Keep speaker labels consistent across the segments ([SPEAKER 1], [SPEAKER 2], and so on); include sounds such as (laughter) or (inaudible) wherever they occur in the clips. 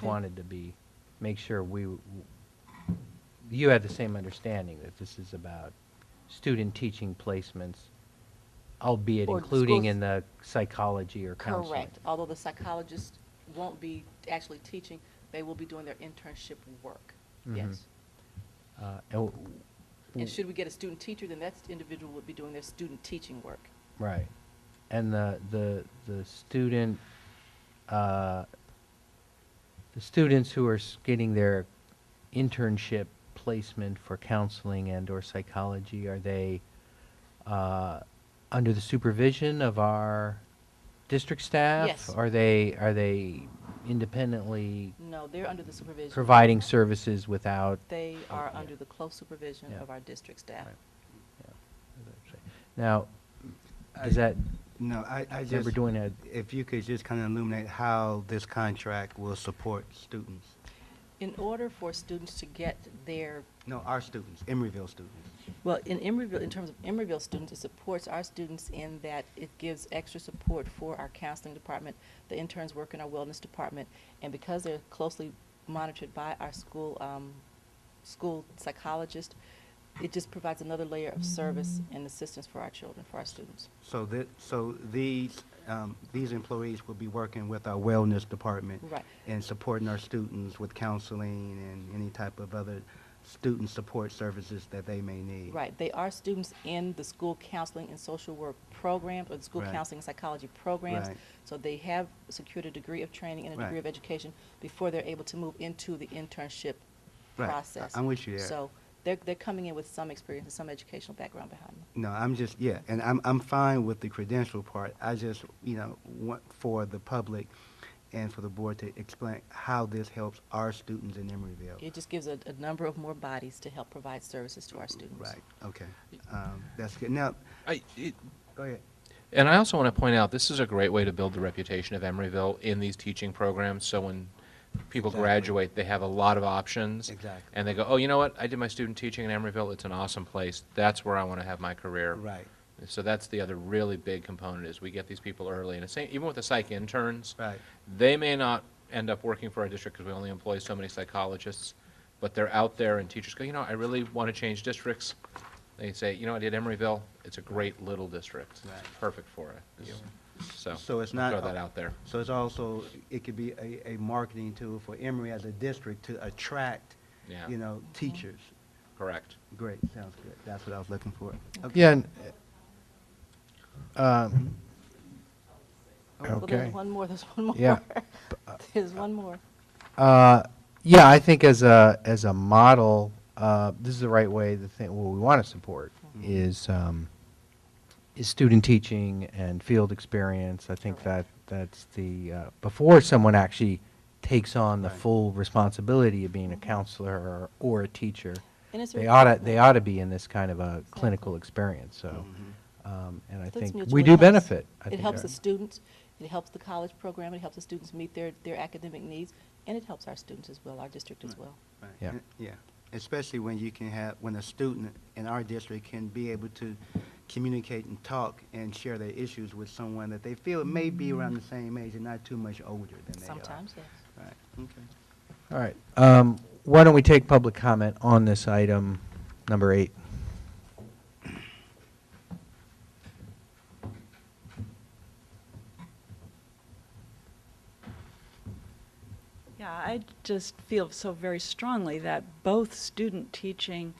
[SPEAKER 1] just wanted to be, make sure we, w- you had the same understanding that this is about student teaching placements, albeit
[SPEAKER 2] Or
[SPEAKER 1] including
[SPEAKER 2] schools-
[SPEAKER 1] in the psychology or counseling.
[SPEAKER 2] Correct, although the psychologists won't be actually teaching, they will be doing their internship work,
[SPEAKER 1] Mhm.
[SPEAKER 2] yes.
[SPEAKER 1] Uh, and w-
[SPEAKER 2] And should we get a student teacher, then that individual would be doing their student teaching work.
[SPEAKER 1] Right. And the, the, the student, uh, the students who are s- getting their internship placement for counseling and or psychology, are they, uh, under the supervision of our district staff?
[SPEAKER 2] Yes.
[SPEAKER 1] Are they, are they independently
[SPEAKER 2] No, they're under the supervision.
[SPEAKER 1] providing services without?
[SPEAKER 2] They
[SPEAKER 1] Oh,
[SPEAKER 2] are
[SPEAKER 1] yeah.
[SPEAKER 2] under the close supervision
[SPEAKER 1] Yeah.
[SPEAKER 2] of our district staff.
[SPEAKER 1] Right. Yeah. Now, does
[SPEAKER 3] I-
[SPEAKER 1] that,
[SPEAKER 3] No, I, I
[SPEAKER 1] remember
[SPEAKER 3] just,
[SPEAKER 1] doing a,
[SPEAKER 3] if you could just kind of illuminate how this contract will support students.
[SPEAKER 2] In order for students to get their,
[SPEAKER 3] No, our students, Emeryville students.
[SPEAKER 2] well, in Emeryville, in terms of Emeryville students, it supports our students in that it gives extra support for our counseling department. The interns work in our wellness department, and because they're closely monitored by our school, um, school psychologist, it just provides another layer of service and assistance for our children, for our students.
[SPEAKER 3] So that, so these, um, these employees will be working with our wellness department.
[SPEAKER 2] Right.
[SPEAKER 3] And supporting our students with counseling and any type of other student support services that they may need.
[SPEAKER 2] Right, they are students in the school counseling and social work programs, or the school
[SPEAKER 3] Right.
[SPEAKER 2] counseling and psychology programs.
[SPEAKER 3] Right.
[SPEAKER 2] So they have secured a degree of training and a degree of
[SPEAKER 3] Right.
[SPEAKER 2] education before they're able to move into the internship
[SPEAKER 3] Right. I-
[SPEAKER 2] process.
[SPEAKER 3] I'm with you there.
[SPEAKER 2] So they're, they're coming in with some experience and some educational background behind them.
[SPEAKER 3] No, I'm just, yeah, and I'm, I'm fine with the credential part. I just, you know, want for the public and for the board to explain how this helps our students in Emeryville.
[SPEAKER 2] It just gives a, a number of more bodies to help provide services to our students.
[SPEAKER 3] Right, okay. Um, that's good. Now,
[SPEAKER 4] I, it,
[SPEAKER 3] go ahead.
[SPEAKER 4] and I also want to point out this is a great way to build the reputation of Emeryville in these teaching programs. So when people
[SPEAKER 3] Exactly.
[SPEAKER 4] graduate, they have a lot of options.
[SPEAKER 3] Exactly.
[SPEAKER 4] And they go, oh, you know what? I did my student teaching in Emeryville. It's an awesome place. That's where I want to have my career.
[SPEAKER 3] Right,
[SPEAKER 4] So that's the other really big component is we get these people early. And the same, even with the psych interns,
[SPEAKER 3] right,
[SPEAKER 4] they may not end up working for our district because we only employ so many psychologists, but they're out there and teachers go, you know, I really want to change districts. They say, you know, I did Emeryville. It's a great little district.
[SPEAKER 3] Right.
[SPEAKER 4] Perfect for it. You- So,
[SPEAKER 3] So it's not-
[SPEAKER 4] throw that out there.
[SPEAKER 3] So it's also, it could be a, a marketing tool for Emory as a district to attract,
[SPEAKER 4] Yeah.
[SPEAKER 3] you know, teachers.
[SPEAKER 4] Correct.
[SPEAKER 3] Great, sounds good. That's what I was looking for. Okay.
[SPEAKER 5] Yeah. and, uh, um,
[SPEAKER 2] Well, there's
[SPEAKER 5] Okay.
[SPEAKER 2] one more, there's one more.
[SPEAKER 5] Yeah.
[SPEAKER 2] There's one more. (laughs)
[SPEAKER 5] Uh, Yeah, I think as a, as a model, uh, this is the right way, the thing, what we want to support is, um, is student teaching and field experience. I think that,
[SPEAKER 2] Correct.
[SPEAKER 5] that's the, uh, before someone actually takes on the
[SPEAKER 3] Right.
[SPEAKER 5] full responsibility of
[SPEAKER 2] Mm-hmm.
[SPEAKER 5] being a counselor or, or a teacher,
[SPEAKER 2] And it's a
[SPEAKER 5] they ought to,
[SPEAKER 2] requirement.
[SPEAKER 5] they ought to be in this kind of a clinical experience, so.
[SPEAKER 3] Mhm.
[SPEAKER 5] um, And I
[SPEAKER 2] So it's
[SPEAKER 5] think
[SPEAKER 2] mutual.
[SPEAKER 5] we
[SPEAKER 2] It
[SPEAKER 5] do
[SPEAKER 2] helps-
[SPEAKER 5] benefit. I
[SPEAKER 2] It
[SPEAKER 5] think
[SPEAKER 2] helps
[SPEAKER 5] our-
[SPEAKER 2] the students, it helps the college program, it helps the students meet their, their academic needs, and it helps our students as well, our district as
[SPEAKER 5] Hmm.
[SPEAKER 3] Right.
[SPEAKER 2] well.
[SPEAKER 3] Right.
[SPEAKER 5] Yeah.
[SPEAKER 3] And- Yeah, especially when you can have, when a student in our district can be able to communicate and talk and share their issues with someone that they feel may be around the same age and not too much older than
[SPEAKER 5] uh,
[SPEAKER 3] they are.
[SPEAKER 2] Sometimes, yes.
[SPEAKER 3] Right, okay.
[SPEAKER 5] All right. um, Why don't we take public comment on this item, number eight?
[SPEAKER 6] Yeah, I just feel so very strongly that both student teaching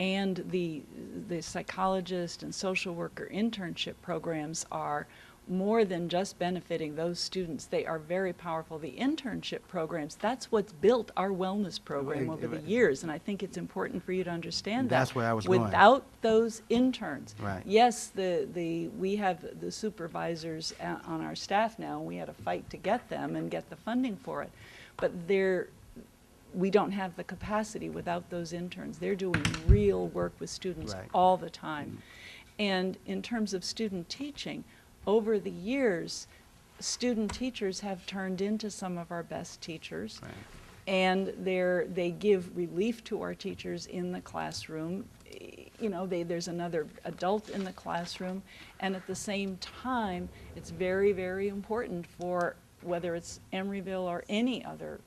[SPEAKER 6] and the, the psychologist and social worker internship programs are more than just benefiting those students. They are very powerful. The internship programs, that's what's built our wellness program
[SPEAKER 3] Right,
[SPEAKER 6] over the
[SPEAKER 3] right.
[SPEAKER 6] years, and I think it's important for you to understand that.
[SPEAKER 3] That's where I was going.
[SPEAKER 6] Without those interns.
[SPEAKER 3] Right.
[SPEAKER 6] Yes, the, the, we have the supervisors a- on our staff now, we had a fight to get them and get the funding for it. But they're, we don't have the capacity without those interns. They're doing real work with students
[SPEAKER 3] Right. Mm-hmm.
[SPEAKER 6] all the time. And in terms of student teaching, over the years, student teachers have turned into some of our best teachers.
[SPEAKER 3] Right.
[SPEAKER 6] And they're, they give relief to our teachers in the classroom. You know, they, there's another adult in the classroom. And at the same time, it's very, very important for, whether it's Emeryville or any other